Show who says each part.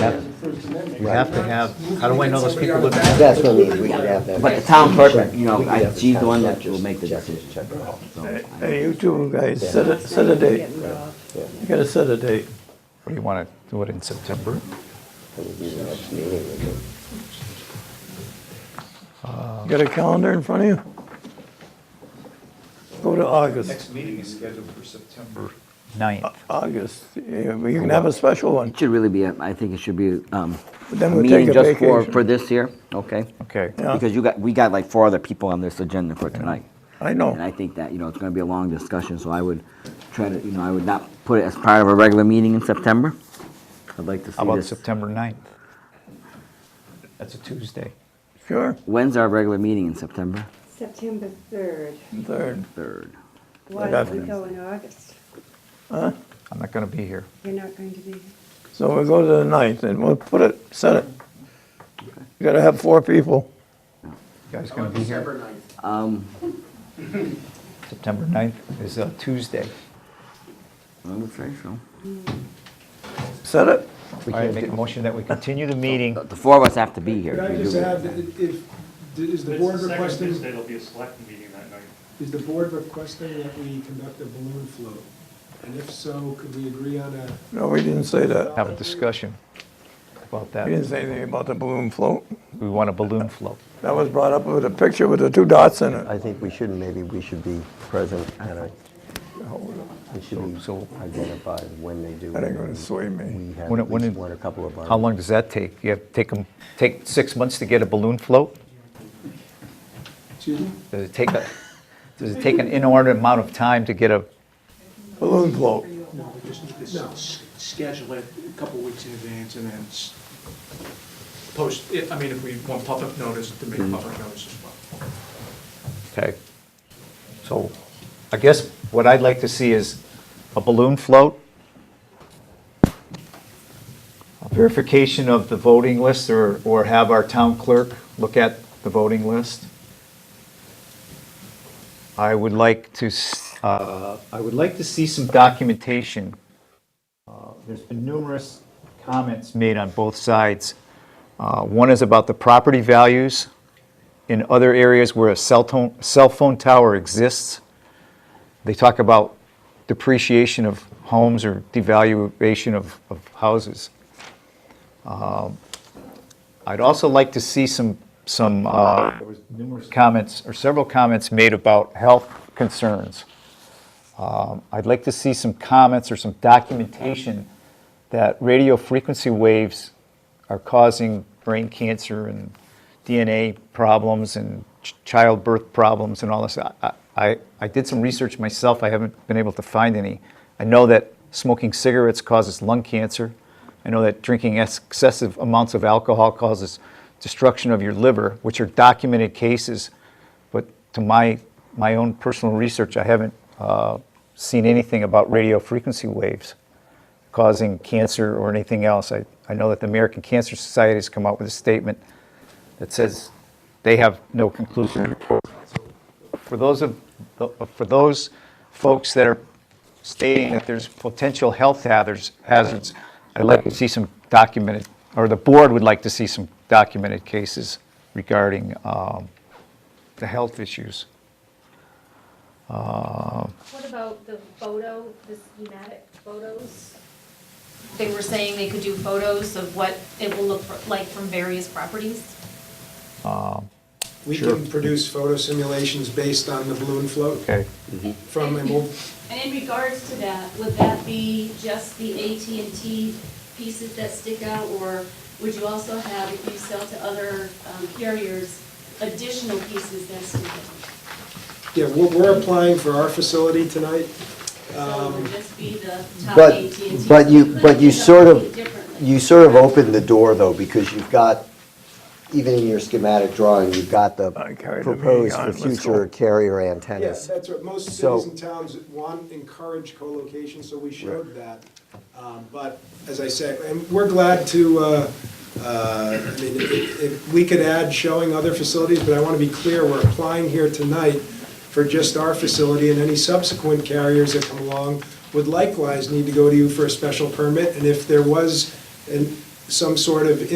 Speaker 1: Yep. We have to have, how do I know those people live?
Speaker 2: That's what we, we could have that.
Speaker 3: But the town clerk, you
Speaker 2: We
Speaker 3: know,
Speaker 2: could
Speaker 3: I-
Speaker 2: have
Speaker 3: she's the
Speaker 2: town
Speaker 3: one that
Speaker 2: clerk
Speaker 3: will
Speaker 2: just
Speaker 3: make the
Speaker 2: check it.
Speaker 3: decision. So, I-
Speaker 4: Hey, you two guys, set a, set a date. You gotta set a date.
Speaker 5: Or you want to do it in September?
Speaker 2: That would be the next meeting, we could-
Speaker 5: Uh,
Speaker 4: You got a calendar in front of you? Go to August,
Speaker 6: Next meeting is scheduled for September.
Speaker 1: Ninth.
Speaker 4: August. You you can have a special one.
Speaker 3: It should really be, a- I think it should be um, a
Speaker 4: Then we'll take
Speaker 3: meeting
Speaker 4: a
Speaker 3: just for,
Speaker 4: vacation.
Speaker 3: for this year, okay?
Speaker 5: Okay.
Speaker 4: Yeah.
Speaker 3: Because you got, we got like four other people on this agenda for tonight.
Speaker 4: I
Speaker 3: And I
Speaker 4: know.
Speaker 3: think that, you know, it's gonna be a long discussion, so I would try to, you know, I would not put it as part of a regular meeting in September. I'd like to see
Speaker 5: How about
Speaker 3: this.
Speaker 5: September 9th? That's a Tuesday.
Speaker 4: Sure.
Speaker 3: When's our regular meeting in September?
Speaker 7: September 3rd.
Speaker 4: Third.
Speaker 3: Third.
Speaker 7: Why
Speaker 4: What
Speaker 7: don't we go in August?
Speaker 5: I'm not going to be here.
Speaker 7: You're not going to be,
Speaker 4: So we'll go to the ninth and we'll put it, set it. You gotta have four people.
Speaker 5: You guys going to be here?
Speaker 3: Um,
Speaker 5: September 9th is a Tuesday.
Speaker 3: I would say so.
Speaker 4: Set it.
Speaker 5: All right, make a motion that we continue the meeting.
Speaker 3: The four of us have to be here.
Speaker 8: Could
Speaker 3: if
Speaker 8: I
Speaker 3: we
Speaker 8: just
Speaker 3: do it.
Speaker 8: add, that it- if, is the board
Speaker 9: It's second Tuesday,
Speaker 8: requesting,
Speaker 9: there'll be a select meeting that night.
Speaker 8: is the board requesting that we conduct a balloon float? And if so, could we agree on a,
Speaker 4: No, we didn't say that.
Speaker 5: Have a discussion about
Speaker 4: We didn't
Speaker 5: that.
Speaker 4: say anything about the balloon float.
Speaker 5: We want a balloon float.
Speaker 4: That was brought up with a picture with the two dots in it.
Speaker 2: I think we should, maybe we should be present at a, we should
Speaker 5: So-
Speaker 2: be identified when they do.
Speaker 4: That ain't
Speaker 2: it.
Speaker 4: gonna sway me.
Speaker 2: We have
Speaker 5: When it-
Speaker 2: at
Speaker 5: when
Speaker 2: least
Speaker 5: it-
Speaker 2: one, a couple of our.
Speaker 5: How long does that take? You have to take 'em- take six months to get a balloon float?
Speaker 8: excuse me?
Speaker 5: Does it take a, does it take an inordinate amount of time to get a,
Speaker 4: Balloon float.
Speaker 8: No, we just need to schedule it a couple weeks in advance and then post, I mean, if we want public notice, to make public notice as well.
Speaker 5: okay? So I guess what I'd like to see is a balloon float, a verification of the voting list, or, or have our town clerk look at the voting list. I would like to, s- uh, I would like to see some documentation. Uh, There's been numerous comments made on both sides. Uh, One is about the property values in other areas where a cell tone- cell phone tower exists. They talk about depreciation of homes or devaluation of of houses. Um, I'd also like to see some, some, uh, there was numerous comments, or several comments made about health concerns. Um, I'd like to see some comments or some documentation that radio frequency waves are causing brain cancer and DNA problems and ch- childbirth problems and all this. I- I, I, I did some research myself, I haven't been able to find any. I know that smoking cigarettes causes lung cancer. I know that drinking excessive amounts of alcohol causes destruction of your liver, which are documented cases. But to my, my own personal research, I haven't uh, seen anything about radio frequency waves causing cancer or anything else. I, I know that the American Cancer Society has come out with a statement that says they have no conclusive report. For those of, for those folks that are stating that there's potential health hazards, hazards, I'd like to see some documented, or the board would like to see some documented cases regarding um, the health issues.
Speaker 10: What about the photo, the schematic photos? They were saying they could do photos of what it will look for- like from various properties?
Speaker 8: We can produce photo simulations based on the balloon float
Speaker 5: Okay.
Speaker 8: from, and we'll
Speaker 10: And in regards to that, would that be just the AT&T pieces that stick out? Or would you also have, if you sell to other um, carriers, additional pieces that stick out?
Speaker 8: Yeah, we're, we're applying for our facility tonight.
Speaker 10: So it would just be the
Speaker 2: Um,
Speaker 10: top
Speaker 2: But,
Speaker 10: AT&T?
Speaker 2: but
Speaker 10: So
Speaker 2: you,
Speaker 10: could
Speaker 2: but you
Speaker 10: do
Speaker 2: sort
Speaker 10: something
Speaker 2: of,
Speaker 10: differently.
Speaker 2: you sort of opened the door though, because you've got, even in your schematic drawing, you've got the
Speaker 4: I carried the meeting
Speaker 2: proposed for
Speaker 4: on, let's go.
Speaker 2: future carrier
Speaker 8: Yeah,
Speaker 2: antennas.
Speaker 8: that's what, most
Speaker 2: So-
Speaker 8: cities and towns want, encourage co-location, so we showed that. Um, But, as I said, and we're glad to, uh, uh, I mean, if, if we could add showing other facilities, but I want to be clear, we're applying here tonight for just our facility, and any subsequent carriers that come along would likewise need to go to you for a special permit, and if there was an some sort of